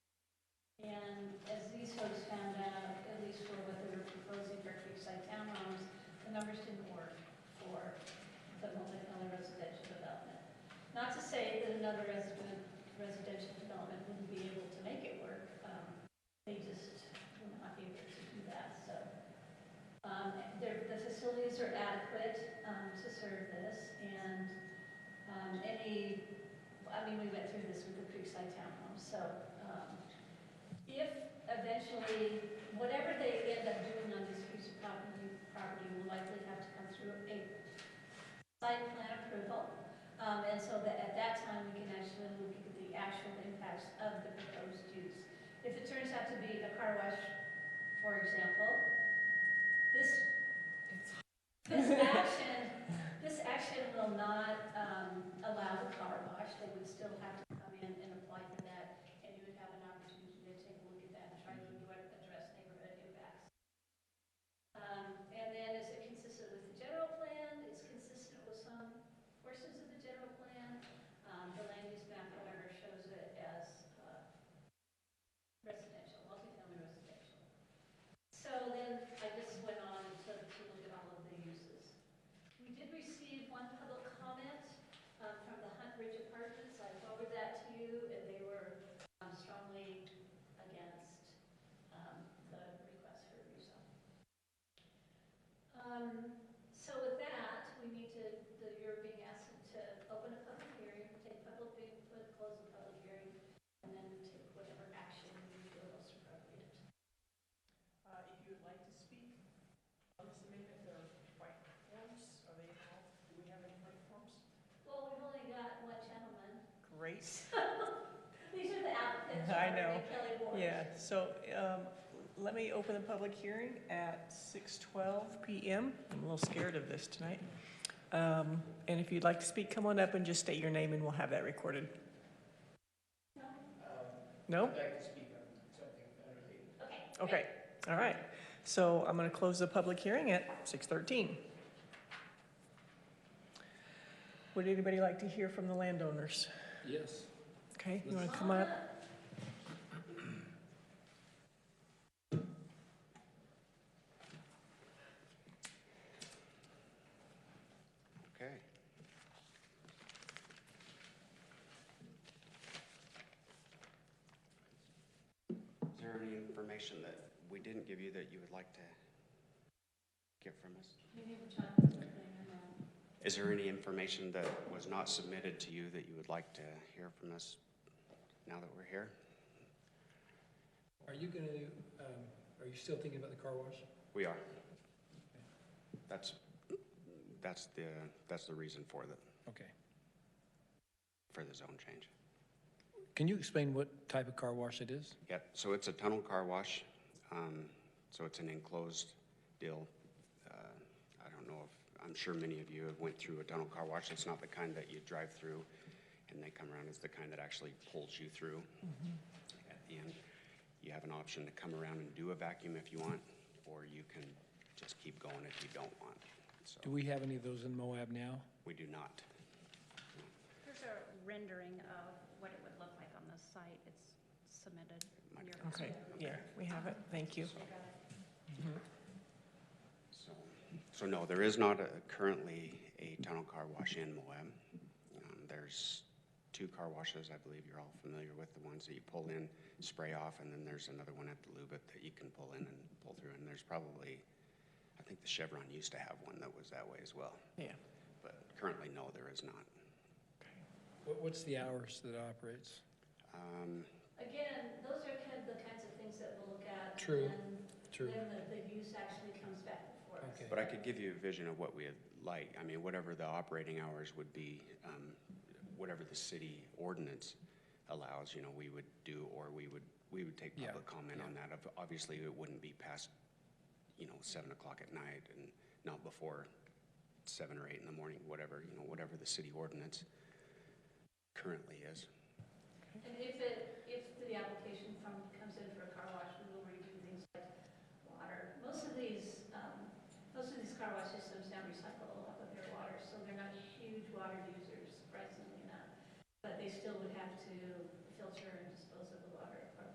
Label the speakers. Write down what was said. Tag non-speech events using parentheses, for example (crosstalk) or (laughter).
Speaker 1: the numbers didn't work for the multifamily residential development. Not to say that another resident, residential development wouldn't be able to make it work, um, they just will not be able to do that, so. Um, there, the facilities are adequate, um, to serve this, and, um, any, I mean, we went through this with the Creekside Townhome, so, um, if eventually, whatever they end up doing on this piece of property, property will likely have to come through a site plan approval. Um, and so that at that time, we can actually look at the actual impacts of the proposed use. If it turns out to be a car wash, for example, this, this action, this action will not, um, allow the car wash. They would still have to come in and apply for that and you would have an opportunity to take a look at that and try to address neighborhood impacts. Um, And then is it consistent with the general plan? It's consistent with some portions of the general plan. Um, The land use map, however, shows it as uh, residential, multifamily residential. So then I just went on and took to look at all of the uses. We did receive one public comment uh, from the Hunt Ridge Apartments. I forwarded that to you, and they were um, strongly against um, the request for rezone. Um, So with that, we need to, the- you're being asked to open a public hearing, take public input, close the public hearing, and then take whatever action you feel most appropriate.
Speaker 2: Uh, If you would like to speak on this amendment, there are white forms, are they all, do we have any white forms?
Speaker 1: Well, we've only got one gentleman.
Speaker 2: Great,
Speaker 1: These are the applicants.
Speaker 2: (laughs) I
Speaker 1: Robert
Speaker 2: know.
Speaker 1: and Kelly Ward.
Speaker 2: yeah, so um, let me open the public hearing at 6:12 PM. I'm a little scared of this tonight. Um, And if you'd like to speak, come on up and just state your name and we'll have that recorded.
Speaker 3: I'd
Speaker 2: No?
Speaker 3: like to speak on something unrelated.
Speaker 1: Okay. great.
Speaker 2: Okay, all right. So I'm going to close the public hearing at 6:13. Would anybody like to hear from the landowners?
Speaker 3: Yes.
Speaker 2: Okay, you want to come on up?
Speaker 4: Okay. Is there any information that we didn't give you that you would like to get from us?
Speaker 1: We need to talk about something, um,
Speaker 4: Is there any information that was not submitted to you that you would like to hear from us now that we're here?
Speaker 5: Are you going to, are you still thinking about the car wash?
Speaker 4: We are. That's, that's the, that's the reason for the,
Speaker 5: Okay.
Speaker 4: for the zone change.
Speaker 5: Can you explain what type of car wash it is?
Speaker 4: Yep, so it's a tunnel car wash, um, so it's an enclosed deal. Uh, I don't know if, I'm sure many of you have went through a tunnel car wash, it's not the kind that you drive through and they come around, it's the kind that actually pulls you through at the end. You have an option to come around and do a vacuum if you want, or you can just keep going if you don't want.
Speaker 5: Do
Speaker 4: So,
Speaker 5: we have any of those in Moab now?
Speaker 4: we do not.
Speaker 6: Here's a rendering of what it would look like on the site. It's submitted.
Speaker 4: Might be
Speaker 6: Your-
Speaker 2: Okay, yeah, we have it, thank you.
Speaker 4: So, so no, there is not a- currently a tunnel car wash in Moab. Um, There's two car washes, I believe you're all familiar with, the ones that you pull in, spray off, and then there's another one at the Lubet that you can pull in and pull through. And there's probably, I think the Chevron used to have one that was that way as well.
Speaker 2: Yeah.
Speaker 4: But currently, no, there is not.
Speaker 5: What- What's the hours that it operates?
Speaker 4: Um,
Speaker 1: Again, those are kind of the kinds of things that we'll look at.
Speaker 5: True,
Speaker 1: And
Speaker 5: true.
Speaker 1: Then the, the use actually comes back before us.
Speaker 5: Okay.
Speaker 4: But I could give you a vision of what we'd like, I mean, whatever the operating hours would be, um, whatever the city ordinance allows, you know, we would do, or we would, we would take
Speaker 5: Yeah,
Speaker 4: public comment on that. Ob- Obviously, it wouldn't be past, you know, seven o'clock at night and not before seven or eight in the morning, whatever, you know, whatever the city ordinance currently is.
Speaker 1: And if it, if the application from, comes in for a car wash, we will redo things like water. Most of these, um, most of these car wash systems now recycle a lot of their water, so they're not huge water users, surprisingly enough. But they still would